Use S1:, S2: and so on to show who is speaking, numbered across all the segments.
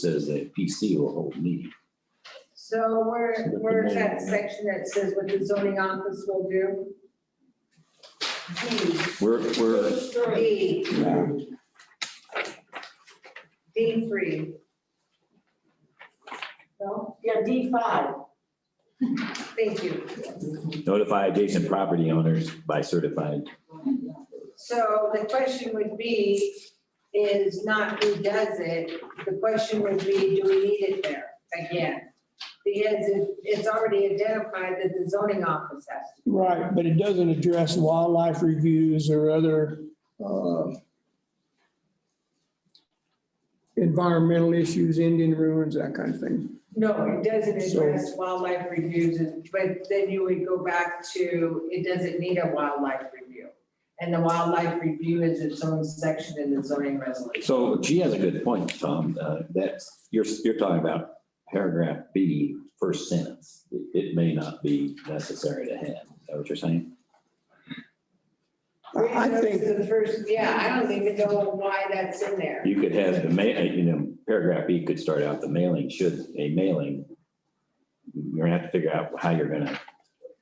S1: says that PC will hold meeting.
S2: So where,
S1: Look
S2: where's
S1: at
S2: that
S1: that.
S2: section that says what the zoning office will do? D,
S1: We're, we're,
S2: D. D three. No,
S3: Yeah, D five.
S2: thank you.
S1: notify adjacent property owners by certified.
S2: So the question would be, is not who does it, the question would be, do we need it there again? Because it- it's already identified that the zoning office has to.
S4: Right, but it doesn't address wildlife reviews or other uh, environmental issues, Indian ruins, that kind of thing.
S2: No, it doesn't
S4: So-
S2: address wildlife reviews, and- but then you would go back to, it doesn't need a wildlife review. And the wildlife review is its own section in the zoning resolution.
S1: So she has a good point, Tom, uh, that you're, you're talking about paragraph B, first sentence. It- It may not be necessary to have. Is that what you're saying?
S4: I I think,
S2: The first, yeah, I don't even know why that's in there.
S1: You could have the ma, uh, you know, paragraph B could start out the mailing should, a mailing. You're gonna have to figure out how you're gonna,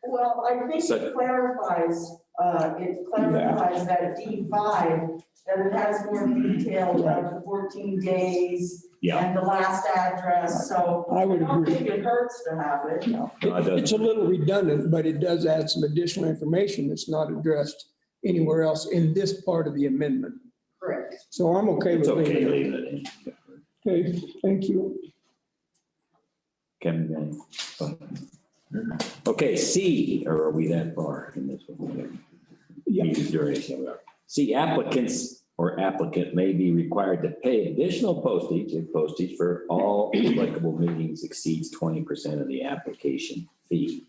S3: Well, I think
S1: So-
S3: it clarifies, uh, it clarifies that D five, that it has more detail about the fourteen days
S1: Yeah.
S3: and the last address, so
S4: I
S3: I
S4: would
S3: don't
S4: agree.
S3: think it hurts to have it.
S1: No, I don't.
S4: It's a little redundant, but it does add some additional information that's not addressed anywhere else in this part of the amendment.
S2: Correct.
S4: So I'm okay
S1: it's
S4: with
S1: okay,
S4: leaving it.
S1: leave it in.
S4: Okay, thank you.
S1: Kevin Gang. um, Okay, C, or are we that far in this one?
S4: Yeah.
S1: Meeting duration. we are. C, applicants or applicant may be required to pay additional postage if postage for all applicable meetings exceeds twenty percent of the application fee.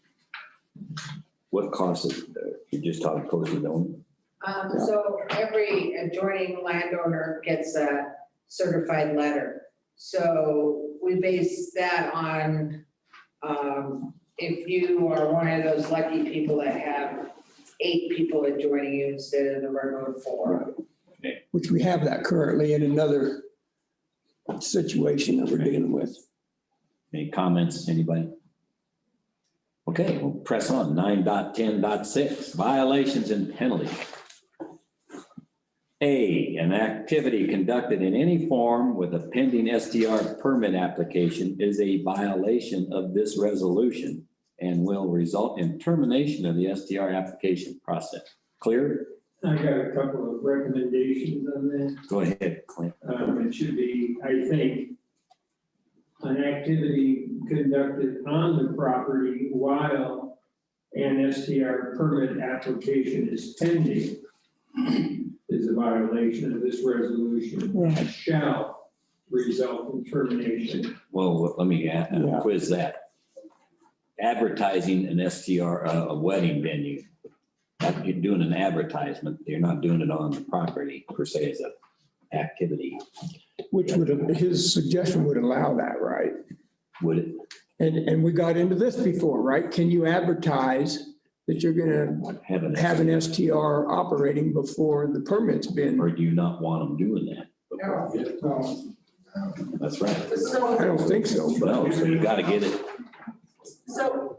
S1: What cost is, there? you're just talking postage only?
S2: Um, so every adjoining landowner gets a certified letter. So we base that on, um, if you are one of those lucky people that have eight people adjoining you instead of the regular four.
S4: Which we have that currently in another situation that we're dealing with.
S1: Any comments, anybody? Okay, we'll press on. Nine dot ten dot six, violations and penalties. A, an activity conducted in any form with a pending STR permit application is a violation of this resolution and will result in termination of the STR application process. Clear?
S5: I got a couple of recommendations on that.
S1: Go ahead, Clint.
S5: Um, it should be, I think, an activity conducted on the property while an STR permit application is pending is a violation of this resolution.
S4: Right.
S5: Shall result in termination.
S1: Well, let me a-
S4: Yeah.
S1: quiz that. Advertising an STR, uh, a wedding venue. That- You're doing an advertisement. You're not doing it on the property per se as a activity,
S4: Which would, his suggestion would allow that, right?
S1: would it?
S4: And, and we got into this before, right? Can you advertise that you're gonna
S1: uh, Have an,
S4: have an STR operating before the permit's been?
S1: or do you not want them doing that?
S2: No.
S4: I
S1: That's right.
S3: So,
S4: don't think so, but
S1: No, so you gotta get it.
S3: so,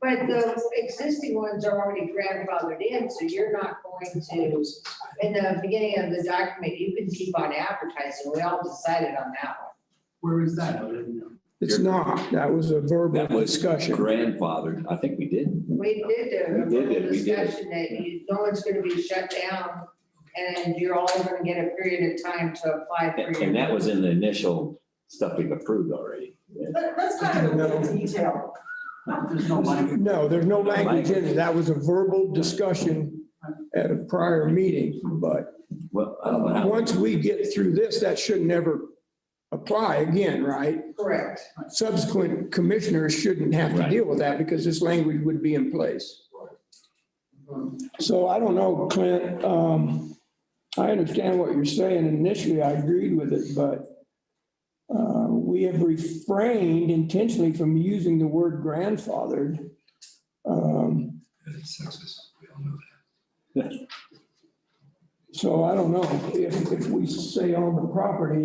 S2: But the existing ones are already grandfathered in, so you're not going to, in the beginning of the document, you can keep on advertising. We all decided on that one.
S5: Where is that?
S4: it's not. That was a verbal
S1: That was
S4: discussion.
S1: Grandfathered, I think we did.
S2: We did a
S1: We did it,
S2: little
S1: we did it.
S2: discussion that you, no one's gonna be shut down, and you're all gonna get a period of time to apply
S1: And
S2: for
S1: and
S2: your.
S1: that was in the initial stuff we've approved already.
S3: that, that's kind of a little detail.
S4: No, there's no language in it. That was a verbal discussion at a prior meeting, but uh,
S1: Well, I don't know how-
S4: once we get through this, that should never apply again, right?
S2: Correct.
S4: subsequent commissioners shouldn't have to
S1: Right.
S4: deal with that because this language would be in place. So I don't know, Clint, um, I understand what you're saying. Initially, I agreed with it, but uh, we have refrained intentionally from using the word grandfathered. Um, So I don't know, if, if we say on the property,